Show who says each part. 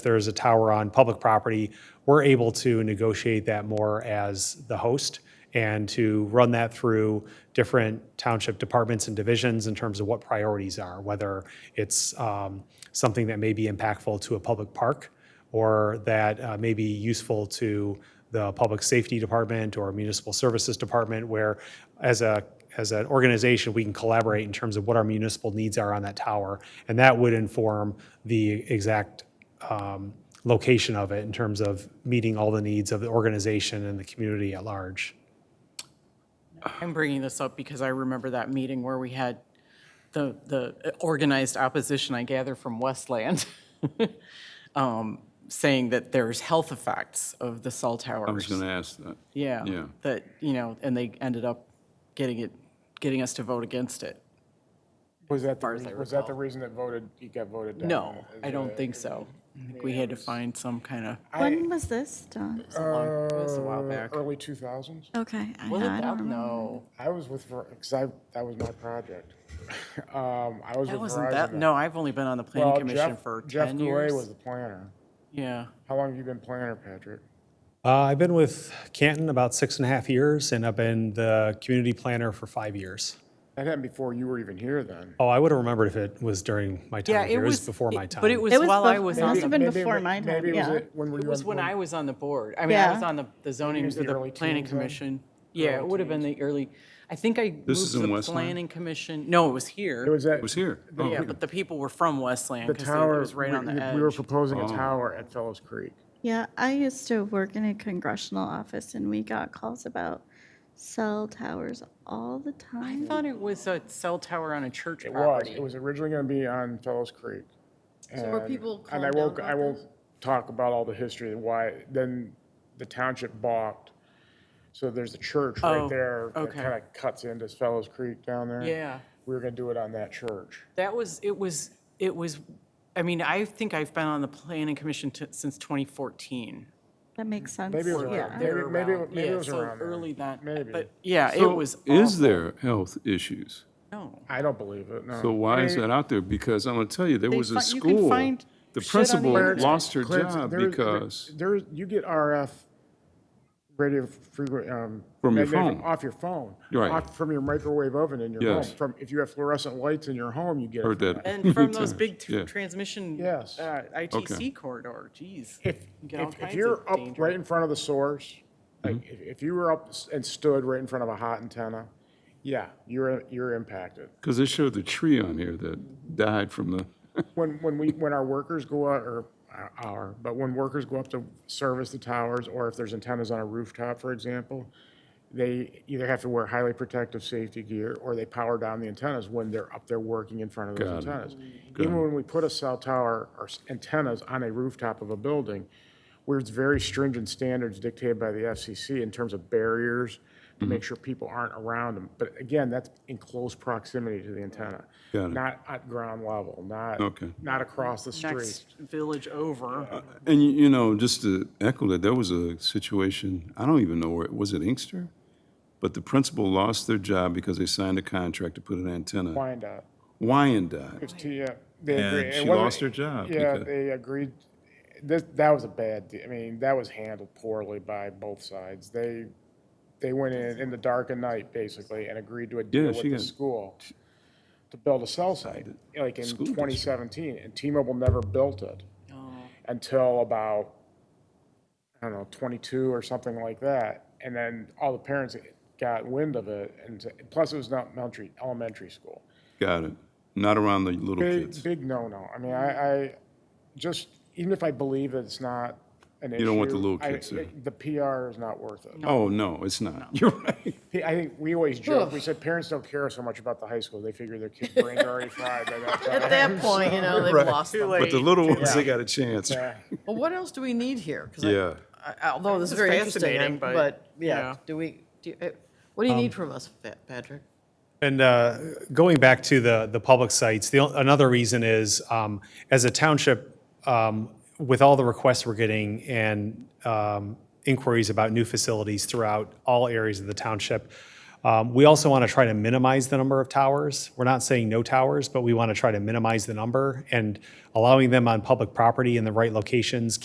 Speaker 1: there is a tower on public property, we're able to negotiate that more as the host and to run that through different township departments and divisions in terms of what priorities are, whether it's um, something that may be impactful to a public park or that uh, may be useful to the Public Safety Department or Municipal Services Department, where as a, as an organization, we can collaborate in terms of what our municipal needs are on that tower. And that would inform the exact um, location of it in terms of meeting all the needs of the organization and the community at large.
Speaker 2: I'm bringing this up because I remember that meeting where we had the, the organized opposition, I gather from Westland, um, saying that there's health effects of the cell
Speaker 3: I was
Speaker 2: towers.
Speaker 3: going to ask that.
Speaker 2: Yeah.
Speaker 3: yeah.
Speaker 2: That, you know, and they ended up getting it, getting us to vote against it.
Speaker 4: Was that, the
Speaker 2: as I
Speaker 4: rea- was that the reason that voted, you got voted down?
Speaker 2: No, I don't think so. I think we had to find some kind of,
Speaker 5: When was this done?
Speaker 2: it was a while
Speaker 4: Uh,
Speaker 2: back.
Speaker 4: Early 2000s?
Speaker 5: Okay, I,
Speaker 2: Was it
Speaker 5: I
Speaker 2: that?
Speaker 5: don't remember.
Speaker 2: No,
Speaker 4: I was with, because I, that was my project. Um, I was
Speaker 2: that
Speaker 4: with
Speaker 2: wasn't that,
Speaker 4: Verizon.
Speaker 2: no, I've only been on the planning
Speaker 4: Well,
Speaker 2: commission
Speaker 4: Jeff-
Speaker 2: for
Speaker 4: Jeff
Speaker 2: 10
Speaker 4: Goulet
Speaker 2: years.
Speaker 4: was the planner.
Speaker 2: Yeah.
Speaker 4: How long have you been planner, Patrick?
Speaker 1: Uh, I've been with Canton about six and a half years, and I've been the community planner for five years.
Speaker 4: That happened before you were even here then.
Speaker 1: Oh, I would have remembered if it was during my time
Speaker 2: Yeah,
Speaker 1: here.
Speaker 2: it was.
Speaker 1: before my
Speaker 2: it-
Speaker 1: time.
Speaker 2: But it was
Speaker 5: It was
Speaker 2: while I
Speaker 5: bef-
Speaker 2: was
Speaker 5: it
Speaker 2: on
Speaker 5: must
Speaker 2: the
Speaker 5: have been
Speaker 4: Maybe-
Speaker 5: before my
Speaker 4: maybe
Speaker 5: time,
Speaker 4: it was
Speaker 5: yeah.
Speaker 4: it When were you
Speaker 2: It
Speaker 4: on?
Speaker 2: was when I was on the board. I mean, I was
Speaker 5: Yeah.
Speaker 2: on the, the zoning, or
Speaker 4: was the
Speaker 2: the
Speaker 4: early
Speaker 2: planning
Speaker 4: teens then?
Speaker 2: commission. Yeah, it would have been the early, I think I moved
Speaker 3: is
Speaker 2: to
Speaker 3: in
Speaker 2: the
Speaker 3: Westland?
Speaker 2: planning commission. No, it was
Speaker 4: It
Speaker 2: here.
Speaker 4: was at.
Speaker 3: It was here. Oh,
Speaker 2: Yeah,
Speaker 3: here.
Speaker 2: but the people were from Westland
Speaker 4: The
Speaker 2: because it
Speaker 4: tower.
Speaker 2: was right
Speaker 4: we-
Speaker 2: on the
Speaker 4: we- We were
Speaker 2: edge.
Speaker 4: proposing a tower at Fellows Creek.
Speaker 5: Yeah, I used to work in a congressional office and we got calls about cell towers all the
Speaker 2: I
Speaker 5: time.
Speaker 2: thought it was a cell tower on a church
Speaker 4: It was,
Speaker 2: property.
Speaker 4: it was originally going to be on Fellows Creek. So
Speaker 6: were people
Speaker 4: And I
Speaker 6: called
Speaker 4: won't,
Speaker 6: down
Speaker 4: I
Speaker 6: about
Speaker 4: won't talk about all the history and why, then the township balked. So there's a church
Speaker 2: Oh,
Speaker 4: right there that
Speaker 2: okay.
Speaker 4: kind of cuts into Fellows Creek down there.
Speaker 2: Yeah.
Speaker 4: We were going to do it on that church.
Speaker 2: That was, it was, it was, I mean, I think I've been on the planning commission t- since 2014.
Speaker 5: That makes sense.
Speaker 4: Maybe it was
Speaker 5: Yeah.
Speaker 4: around, maybe, maybe, it- maybe
Speaker 2: Yeah,
Speaker 4: it was
Speaker 2: so
Speaker 4: around there.
Speaker 2: Early that,
Speaker 4: Maybe.
Speaker 2: but yeah, it
Speaker 3: So
Speaker 2: was
Speaker 3: Is
Speaker 2: awful.
Speaker 3: there health issues?
Speaker 2: No.
Speaker 4: I don't believe it, no.
Speaker 3: So why is that out there? Because I'm going to tell you, there was a
Speaker 2: fi- you can
Speaker 3: school.
Speaker 2: find
Speaker 3: The
Speaker 2: shit on the
Speaker 3: principal
Speaker 2: internet.
Speaker 3: lost her
Speaker 4: Clarence,
Speaker 3: job
Speaker 4: there-
Speaker 3: because,
Speaker 4: There, you get RF radio frequency. um.
Speaker 3: From your
Speaker 4: magnetic-
Speaker 3: phone.
Speaker 4: Off your phone.
Speaker 3: Right.
Speaker 4: Off- From your microwave oven in your home.
Speaker 3: Yes.
Speaker 4: From, if you have fluorescent lights in your home, you get it.
Speaker 3: heard
Speaker 4: from
Speaker 3: that.
Speaker 2: And from those big tr-
Speaker 3: Yeah.
Speaker 2: transmission.
Speaker 4: Yes.
Speaker 2: uh, ITC corridor, geez.
Speaker 4: If,
Speaker 2: You get all
Speaker 4: if, if
Speaker 2: kinds
Speaker 4: you're
Speaker 2: of
Speaker 4: up
Speaker 2: danger.
Speaker 4: right in front of the source, like, if, if you were up s- and stood right in front of a hot antenna, yeah, you're, you're impacted.
Speaker 3: because they showed the tree on here that died from the,
Speaker 4: When, when we, when our workers go out, or our- our, but when workers go up to service the towers, or if there's antennas on a rooftop, for example, they either have to wear highly protective safety gear, or they power down the antennas when they're up there working in front of those
Speaker 3: Got
Speaker 4: antennas. Even when we put a cell tower or s- antennas on a rooftop of a building, where it's very stringent standards dictated by the FCC in terms of barriers to
Speaker 3: Mm-hmm.
Speaker 4: make sure people aren't around them. But again, that's in close proximity to the antenna.
Speaker 3: Got it.
Speaker 4: Not at ground level, not,
Speaker 3: Okay.
Speaker 4: not across the street.
Speaker 2: Next village over.
Speaker 3: and you, you know, just to echo that, there was a situation, I don't even know where, it was it Inkster? But the principal lost their job because they signed a contract to put an antenna.
Speaker 4: Wyandotte.
Speaker 3: Wyandotte.
Speaker 4: It's to, yeah, they
Speaker 3: And
Speaker 4: agree. It
Speaker 3: she
Speaker 4: wasn't-
Speaker 3: lost her job
Speaker 4: Yeah,
Speaker 3: because-
Speaker 4: they agreed. This, that was a bad, de- I mean, that was handled poorly by both sides. They, they went in in the dark of night, basically, and agreed to a
Speaker 3: Yeah,
Speaker 4: deal with
Speaker 3: she
Speaker 4: the
Speaker 3: got-
Speaker 4: school to build a cell site, like in
Speaker 3: district.
Speaker 4: 2017, and T-Mobile never built it until about, I don't know, 22 or something like that. And then all the parents got wind of it, and plus it was not elementary, elementary school.
Speaker 3: Got it. Not around the little kids.
Speaker 4: Big, big no-no. I mean, I, I just, even if I believe that it's not an issue.
Speaker 3: don't want the little
Speaker 4: I-
Speaker 3: kids there.
Speaker 4: The PR is not worth it.
Speaker 3: Oh, no, it's not. You're right.
Speaker 4: P- I think we always joke, we said parents don't care so much about the high school. They figure their kid's brain's already fried by that time.
Speaker 6: At that point, you know, they've lost them.
Speaker 3: But the little ones, they got a chance.
Speaker 4: Yeah.
Speaker 6: Well, what else do we need here? 'Cause I-
Speaker 3: Yeah.
Speaker 6: I- Although this is
Speaker 2: is
Speaker 6: very interesting,
Speaker 2: fascinating,
Speaker 6: I'm-
Speaker 2: but,
Speaker 6: but,
Speaker 2: yeah.
Speaker 6: yeah, do we, do you- eh, what do you need from us, Fa- Patrick?
Speaker 1: And uh, going back to the, the public sites, the, o- another reason is, um, as a township, um, with all the requests we're getting and um, inquiries about new facilities throughout all areas of the township, Um, We also want to try to minimize the number of towers. We're not saying no towers, but we want to try to minimize the number, and allowing them on public property in the right locations